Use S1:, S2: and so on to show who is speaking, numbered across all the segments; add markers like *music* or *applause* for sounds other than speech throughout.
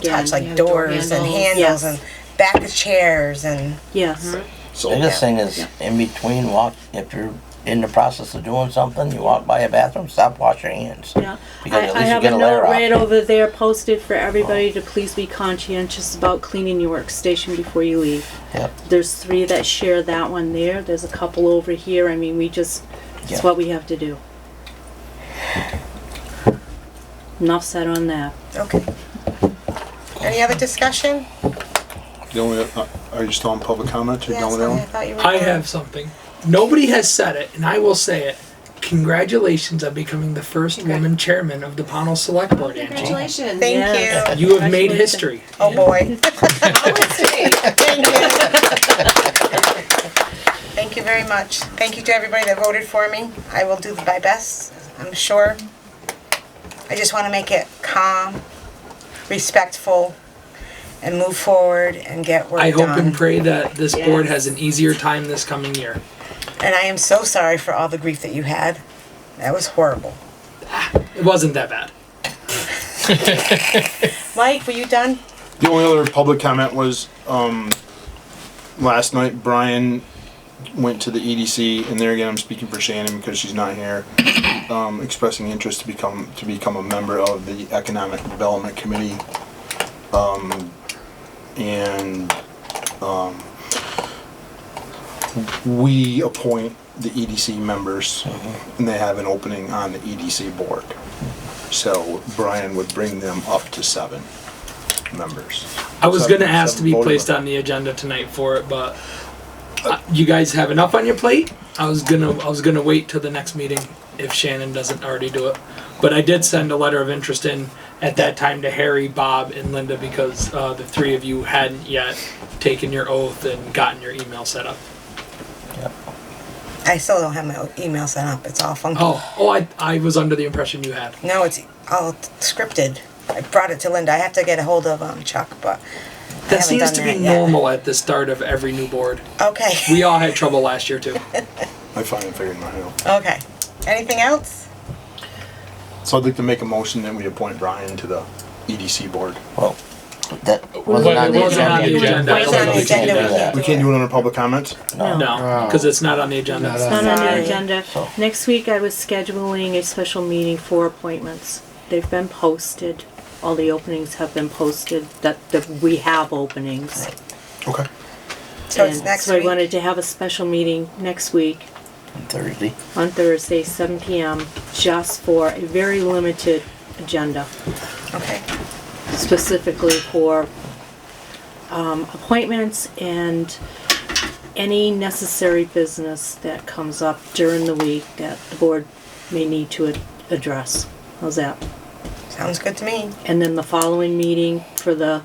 S1: touch,
S2: you
S1: like
S2: have door
S1: doors and
S2: handles.
S1: handles and back of chairs and,
S2: Yes.
S3: So
S4: Biggest thing is in between walk, if you're in the process of doing something, you walk by a bathroom, stop, wash your hands.
S2: Yeah.
S4: Because
S2: I,
S4: at
S2: I
S4: least you
S2: have a
S4: get a
S2: note
S4: layer
S2: right
S4: off.
S2: over there posted for everybody to please be conscientious about cleaning your workstation before you leave.
S4: Yep.
S2: There's three that share that one there. There's a couple over here. I mean, we just, it's
S4: Yeah.
S2: what we have to do. Enough said on that.
S1: okay. Any other discussion?
S3: The only, uh, are you still on public comment or
S1: Yeah,
S3: done with that
S1: sorry, I
S3: one?
S1: thought you were
S5: I
S1: done.
S5: have something. Nobody has said it, and I will say it. Congratulations on becoming the first woman chairman of the Pownell Select Board, Angie.
S6: Congratulations.
S1: Thank
S2: Yes.
S1: you.
S5: You have made history.
S1: Oh
S2: *laughs*
S1: boy. Oh, Thank you. Thank you very much. Thank you to everybody that voted for me. I will do my best, I'm sure. I just want to make it calm, respectful, and move forward and get work
S5: I hope
S1: done.
S5: and pray that this board
S2: Yes.
S5: has an easier time this coming year.
S1: And I am so sorry for all the grief that you had. That was horrible.
S5: It wasn't that bad.
S1: Mike, were you done?
S3: The only other public comment was, um, last night Brian went to the EDC, and there again, I'm speaking for Shannon because she's not here, um, expressing interest to become, to become a member of the Economic Development Committee. Um, and, um, we appoint the EDC members, and they have an opening on the EDC board. So Brian would bring them up to seven members.
S5: I was
S3: Seven-
S5: gonna ask to
S3: seven
S5: be
S3: voting
S5: placed
S3: members.
S5: on the agenda tonight for it, but uh, you guys have enough on your plate. I was gonna, I was gonna wait till the next meeting if Shannon doesn't already do it. But I did send a letter of interest in at that time to Harry, Bob, and Linda because uh, the three of you hadn't yet taken your oath and gotten your email set up.
S1: I still don't have my email set up. It's all funky.
S5: Oh, oh, I, I was under the impression you had.
S1: No, it's all scripted. I brought it to Linda. I have to get a hold of um, Chuck, but
S5: That
S1: haven't
S5: seems
S1: done
S5: to be
S1: that yet.
S5: normal at the start of every new board.
S1: okay. *laughs*
S5: We all had trouble last year too.
S3: I finally figured mine out.
S1: Okay. Anything else?
S3: So I'd like to make a motion that we appoint Brian to the EDC board.
S4: Well, that wasn't
S5: Well,
S4: on
S5: it
S4: the
S5: wasn't on the
S4: agenda.
S5: agenda. I
S1: It's
S5: don't
S1: on
S5: know
S1: the
S5: if we can
S1: agenda.
S5: do
S1: We
S4: that.
S1: can't
S3: We can't do it under public comment?
S5: No, because it's not on the agenda.
S2: It's not on
S1: Sorry.
S2: the agenda.
S4: So-
S2: Next week, I was scheduling a special meeting for appointments. They've been posted. All the openings have been posted, that, that we have openings.
S3: Okay.
S1: So it's
S2: And
S1: next
S2: So I
S1: week.
S2: wanted to have a special meeting next week
S4: Thursday.
S2: on Thursday, seven PM, just for a very limited agenda,
S1: okay.
S2: specifically for um, appointments and any necessary business that comes up during the week that the board may need to ad- address. How's that?
S1: Sounds good to me.
S2: And then the following meeting for the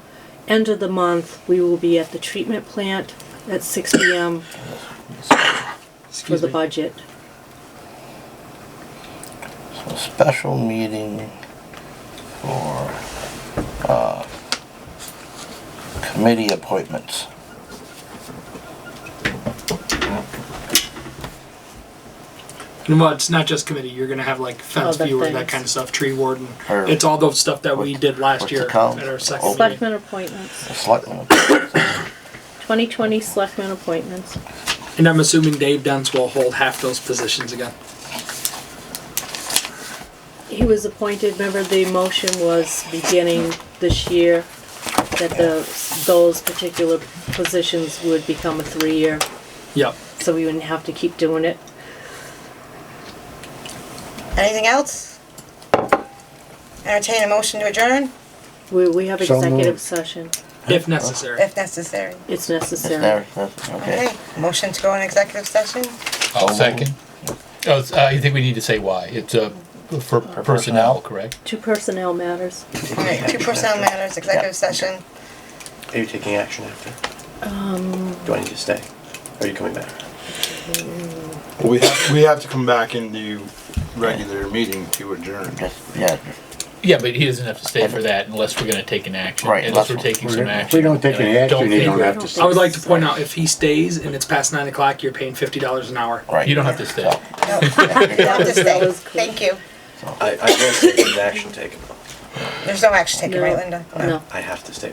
S2: end of the month, we will be at the treatment plant at six PM for
S5: Excuse
S2: the
S5: me.
S2: budget.
S4: So special meeting for, uh, committee appointments.
S5: And well, it's not just committee. You're gonna have like fence
S2: Other
S5: viewer, that
S2: things.
S5: kind of stuff, tree warden.
S4: Or-
S5: it's all those stuff that we
S4: what-
S5: did last
S4: what's
S5: year
S4: it called?
S5: at our second meeting.
S2: Selectmen appointments,
S4: The selectmen appointments.
S2: 2020 selectmen appointments.
S5: And I'm assuming Dave Dents will hold half those positions again.
S2: He was appointed, remember the motion was beginning this year that the, those particular positions would become a three-year,
S5: Yep.
S2: so we wouldn't have to keep doing it.
S1: Anything else? Entertain a motion to adjourn
S2: We, we have
S7: So
S2: executive
S7: moved.
S2: session.
S5: If necessary.
S1: if necessary.
S2: It's
S4: It's
S2: necessary.
S4: there, that's- okay.
S1: Okay. Motion to go in executive session?
S8: I'll second. Oh, it's, uh, I think we need to say why. It's uh, for personnel, correct?
S2: Two personnel matters.
S1: All right, two personnel matters, executive session.
S9: Are you taking action after?
S1: Um,
S9: Do I need to stay? Are you coming back?
S3: Well, we have, we have to come back and do regular meeting to adjourn.
S4: Just, yeah, just-
S8: Yeah, but he doesn't have to stay for that unless we're gonna take an action.
S4: Right,
S8: Unless we're
S4: that's-
S8: taking some
S7: If
S8: action.
S7: we don't take
S8: And I
S7: any action,
S8: don't
S7: you
S8: think
S7: don't
S8: we're-
S7: have to
S5: I would like to point out if he stays and it's past nine o'clock, you're paying fifty dollars an hour.
S4: right.
S8: You don't have to stay.
S1: No, *laughs* you have to
S2: That
S1: stay.
S2: was cool.
S1: Thank you.
S9: I, I guess there was action taken.
S10: There's no action taken, right, Linda?
S11: No.
S1: I have to stay.